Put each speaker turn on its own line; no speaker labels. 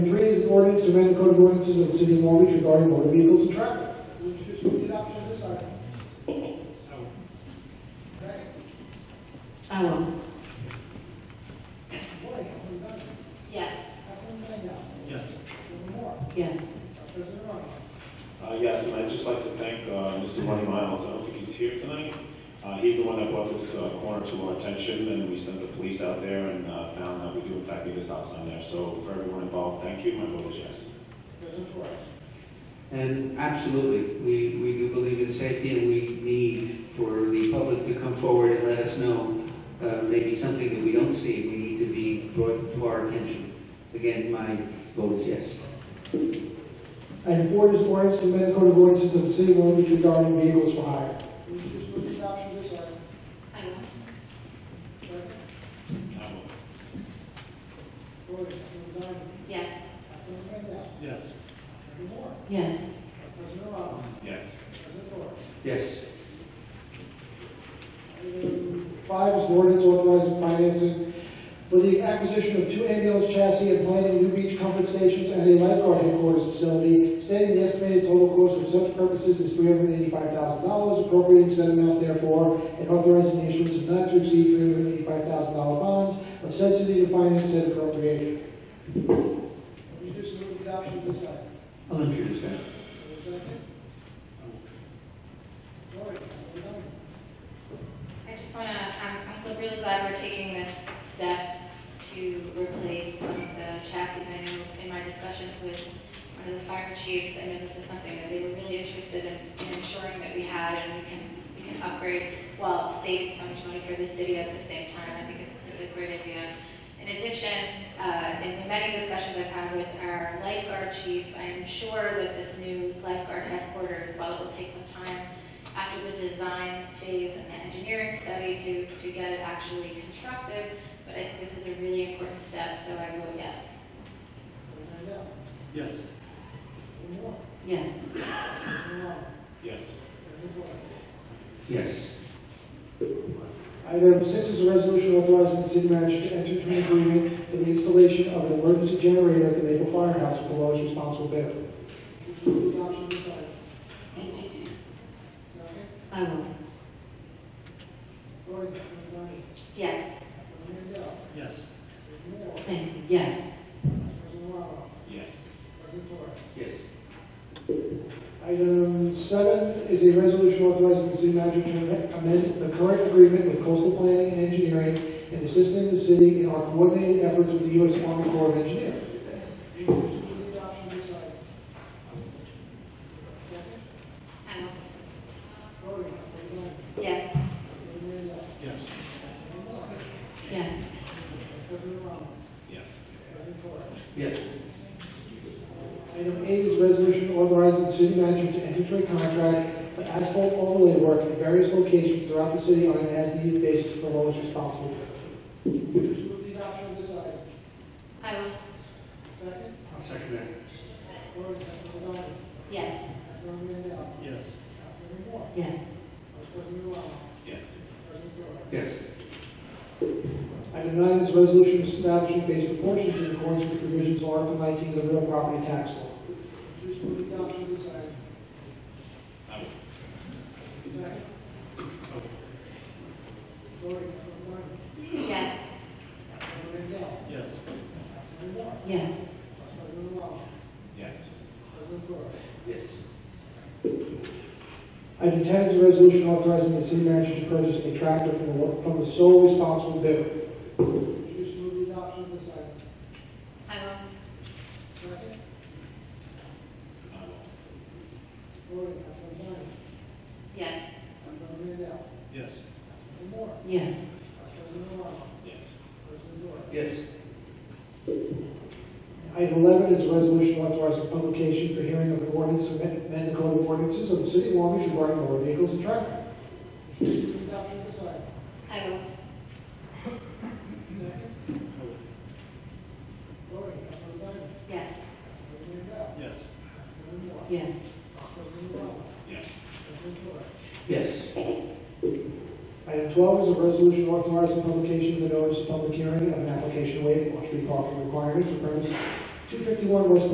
amendments to amend the code of ordinances of the city of Long Beach regarding motor vehicles and traffic.
I will. Yes.
Yes.
Yes.
Uh, Yes, and I'd just like to thank uh, Mr. Ronnie Miles. I don't think he's here tonight. Uh, He's the one that brought this uh, corner to our attention, and we sent the police out there and uh, found that we do in fact need a stop sign there. So for everyone involved, thank you. My vote is yes.
And absolutely, we, we do believe in safety and we need for the public to come forward and let us know, uh, maybe something that we don't see, we need to be brought to our attention. Again, my vote is yes.
Item four is ordinance to amend the code of ordinances of the city of Long Beach regarding vehicles for hire.
I will.
I vote
Yes.
Yes.
Yes.
Yes.
Yes.
Five is an ordinance authorizing financing for the acquisition of two ambulance chassis and plane in New Beach Comfort Stations and a lifeguard headquarters facility, stating the estimated total cost for such purposes is three hundred eighty-five thousand dollars, appropriating said amount therefore, and authorizing the issuance of not to exceed three hundred eighty-five thousand dollar bonds of said city to finance said appropriation.
I'll introduce that.
I just want to, I'm, I'm gl- really glad we're taking this step to replace some of the chassis. I know in my discussions with one of the fire chiefs, I know this is something that they were really interested in, in ensuring that we had and we can, we can upgrade while saving so much money for the city at the same time. I think it's, it's a great idea. In addition, uh, in the many discussions I've had with our lifeguard chief, I'm sure that this new lifeguard headquarters, while it will take some time after the design phase and the engineering study to, to get it actually constructed, but I think this is a really important step, so I vote yes.
Yes.
Yes.
Yes.
Yes.
Item six is a resolution authorizing the city manager to enter into an agreement for the installation of an emergency generator at the Maple Firehouse with the lowest responsible bidder.
I will.
Yes,
Yes.
Thank you. Yes.
Yes.
Yes.
Item seven is a resolution authorizing the city manager to amend the current agreement with coastal planning and engineering and assisting the city in our coordinated efforts with the U.S. Army Corps of Engineers.
I know. Yes,
Yes.
Yes.
Yes.
Yes.
Item eight is a resolution authorizing the city manager to enter into a contract for asphalt overlay work at various locations throughout the city on an as-needed basis for lowest responsible bidder.
I will.
I'll second that.
Yes.
Yes.
Yes.
Yes.
Yes.
Item nine is a resolution establishing base proportions in accordance with provisions of Article 19 of the real property tax law.
I vote
Yes,
Yes.
Yes.
Yes.
Yes.
Item 10 is a resolution authorizing the city manager to purchase a tractor from the- from the sole responsible bidder.
I will.
I vote
Yes,
Yes.
Yes.
Yes.
Yes.
Item 11 is a resolution authorizing publication for hearing of an ordinance to amend amend the code of ordinances of the city of Long Beach regarding motor vehicles and traffic.
I will. Yes,
Yes.
Yes.
Yes.
Yes.
Item 12 is a resolution authorizing publication of the notice of public hearing of an application waiving off-street parking requirements for premise 251 West